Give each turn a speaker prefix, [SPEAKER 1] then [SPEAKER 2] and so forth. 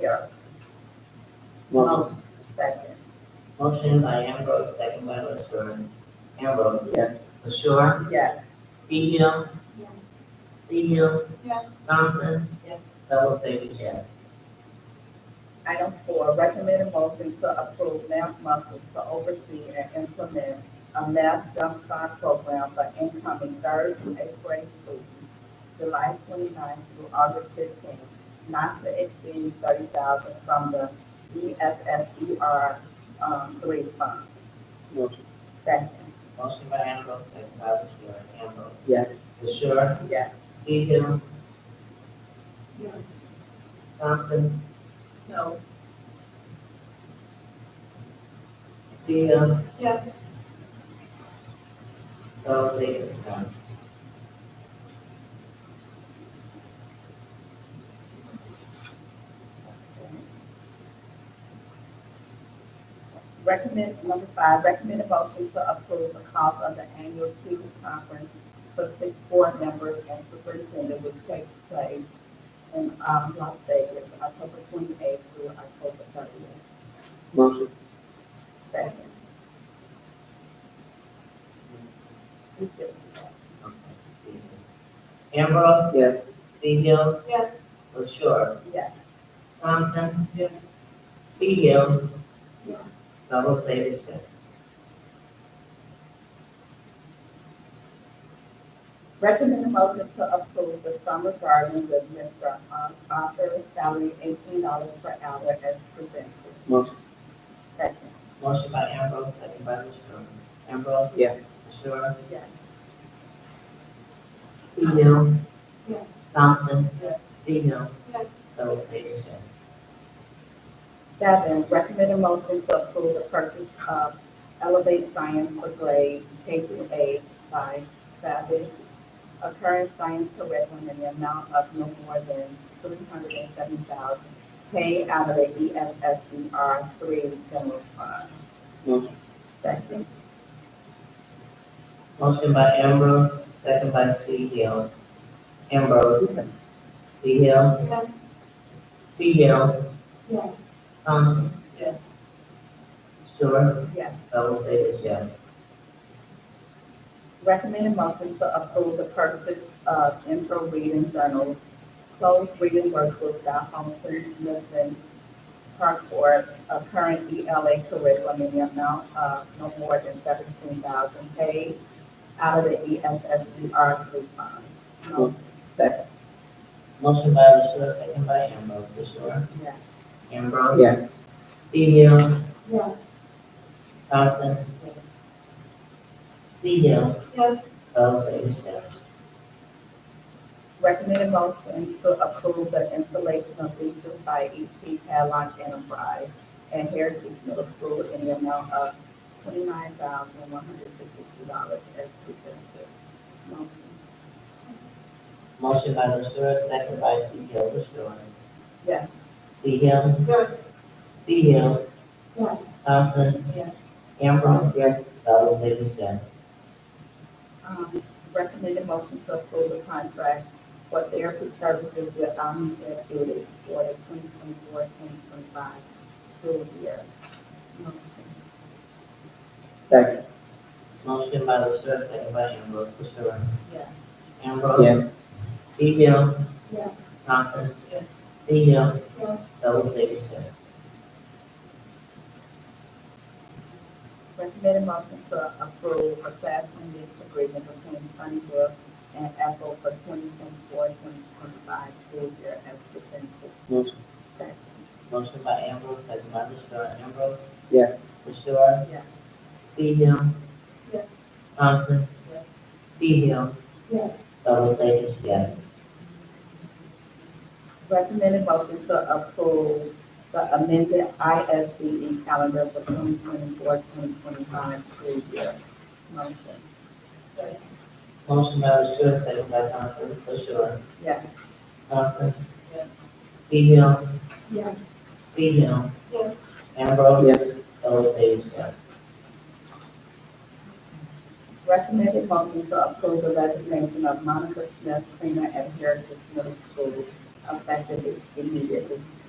[SPEAKER 1] Yep.
[SPEAKER 2] Motion.
[SPEAKER 1] Second.
[SPEAKER 3] Motion by Ambrose, second by LaShure. Ambrose.
[SPEAKER 2] Yes.
[SPEAKER 3] LaShure.
[SPEAKER 1] Yes.
[SPEAKER 3] Teal.
[SPEAKER 4] Yes.
[SPEAKER 3] Teal.
[SPEAKER 4] Yes.
[SPEAKER 3] Thompson.
[SPEAKER 1] Yes.
[SPEAKER 3] Fellows Davis, yes.
[SPEAKER 1] Item four, recommend a motion to approve MAP Muscles to oversee and implement a MAP Jumpstart program for incoming third and eighth grade students, July 29th through August fifteenth, not to exceed thirty thousand from the E ESSER, um, three fund.
[SPEAKER 2] Motion.
[SPEAKER 1] Second.
[SPEAKER 3] Motion by Ambrose, second by LaShure. Ambrose.
[SPEAKER 2] Yes.
[SPEAKER 3] LaShure.
[SPEAKER 1] Yes.
[SPEAKER 3] Teal.
[SPEAKER 4] Yes.
[SPEAKER 3] Thompson.
[SPEAKER 4] No.
[SPEAKER 3] Teal.
[SPEAKER 4] Yes.
[SPEAKER 3] Fellows Davis, yes.
[SPEAKER 1] Recommend, number five, recommend a motion to approve the cost of the annual student conference for six board members and superintendent, which takes place in, um, Las Vegas, October twenty-eighth through October thirtieth.
[SPEAKER 2] Motion.
[SPEAKER 1] Second. Who gives a fuck?
[SPEAKER 3] Okay. Teal. Ambrose.
[SPEAKER 2] Yes.
[SPEAKER 3] Teal.
[SPEAKER 4] Yes.
[SPEAKER 3] LaShure.
[SPEAKER 1] Yes.
[SPEAKER 3] Thompson. Yes. Teal.
[SPEAKER 4] Yes.
[SPEAKER 3] Fellows Davis, yes.
[SPEAKER 1] Recommend a motion to approve the summer garden with Mr. Arthur, salary eighteen dollars per hour as presented.
[SPEAKER 2] Motion.
[SPEAKER 1] Second.
[SPEAKER 3] Motion by Ambrose, second by LaShure. Ambrose.
[SPEAKER 2] Yes.
[SPEAKER 3] LaShure.
[SPEAKER 1] Yes.
[SPEAKER 3] Teal.
[SPEAKER 4] Yes.
[SPEAKER 3] Thompson.
[SPEAKER 1] Yes.
[SPEAKER 3] Teal.
[SPEAKER 4] Yes.
[SPEAKER 3] Fellows Davis, yes.
[SPEAKER 1] Seven, recommend a motion to approve the purchase of Elevate Science for grades K through eight by Savage, a current science curriculum in the amount of no more than three hundred and seven thousand, paid out of the E EFSBR three general fund.
[SPEAKER 2] Motion.
[SPEAKER 1] Second.
[SPEAKER 3] Motion by Ambrose, second by Teal. Ambrose. Teal.
[SPEAKER 4] Yes.
[SPEAKER 3] Teal.
[SPEAKER 4] Yes.
[SPEAKER 3] Thompson.
[SPEAKER 1] Yes.
[SPEAKER 3] Sure.
[SPEAKER 1] Yes.
[SPEAKER 3] Fellows Davis, yes.
[SPEAKER 1] Recommend a motion to approve the purchase of intro reading journals, closed reading workbooks by Homestead Milton Parkport, a current ELA curriculum in the amount of no more than seventeen thousand paid out of the E ESSBR three fund. Motion,
[SPEAKER 2] Second.
[SPEAKER 3] Motion by LaShure, second by Ambrose. LaShure.
[SPEAKER 1] yes.
[SPEAKER 3] Ambrose.
[SPEAKER 2] Yes.
[SPEAKER 3] Teal.
[SPEAKER 4] Yes.
[SPEAKER 3] Thompson. Teal.
[SPEAKER 4] Yes.
[SPEAKER 3] Fellows Davis, yes.
[SPEAKER 1] Recommend a motion to approve the installation of bleachers by ET Padlock E Enterprise and Heritage Middle School in the amount of twenty-nine thousand one hundred fifty-two dollars as presented. Motion,
[SPEAKER 3] Motion by LaShure, second by Teal. LaShure.
[SPEAKER 1] yes.
[SPEAKER 3] Teal.
[SPEAKER 4] Yes.
[SPEAKER 3] Teal.
[SPEAKER 4] Yes.
[SPEAKER 3] Thompson.
[SPEAKER 1] Yes.
[SPEAKER 3] Ambrose.
[SPEAKER 2] Yes.
[SPEAKER 3] Fellows Davis, yes.
[SPEAKER 1] Um, recommend a motion to approve the contract for therapy services with Omni Therapeutics for the 2024-2025 school year. Motion,
[SPEAKER 2] Second.
[SPEAKER 3] Motion by LaShure, second by Ambrose. LaShure.
[SPEAKER 1] yes.
[SPEAKER 3] Ambrose.
[SPEAKER 2] Yes.
[SPEAKER 3] Teal.
[SPEAKER 4] Yes.
[SPEAKER 3] Thompson.
[SPEAKER 1] Yes.
[SPEAKER 3] Teal.
[SPEAKER 4] Yes.
[SPEAKER 3] Fellows Davis, yes.
[SPEAKER 1] Recommend a motion to approve a classroom lease agreement between Sunnybrook and Ethel for 2024-2025 school year as presented.
[SPEAKER 2] Motion.
[SPEAKER 1] Second.
[SPEAKER 3] Motion by Ambrose, second by LaShure. Ambrose.
[SPEAKER 2] Yes.
[SPEAKER 3] LaShure.
[SPEAKER 1] Yes.
[SPEAKER 3] Teal.
[SPEAKER 4] Yes.
[SPEAKER 3] Thompson.
[SPEAKER 1] Yes.
[SPEAKER 3] Teal.
[SPEAKER 4] Yes.
[SPEAKER 3] Fellows Davis, yes.
[SPEAKER 1] Recommend a motion to approve the amended ISBE E calendar for 2024-2025 school year. Motion.
[SPEAKER 3] Motion by LaShure, second by Thompson. LaShure.
[SPEAKER 1] Yes.
[SPEAKER 3] Thompson.
[SPEAKER 1] Yes.
[SPEAKER 3] Teal.
[SPEAKER 4] Yes.
[SPEAKER 3] Teal.
[SPEAKER 4] Yes.
[SPEAKER 3] Ambrose.
[SPEAKER 2] Yes.
[SPEAKER 3] Fellows Davis, yes.
[SPEAKER 1] Recommended motion to approve the resignation of Monica Smith, cleaner at Heritage Middle School, effective immediately.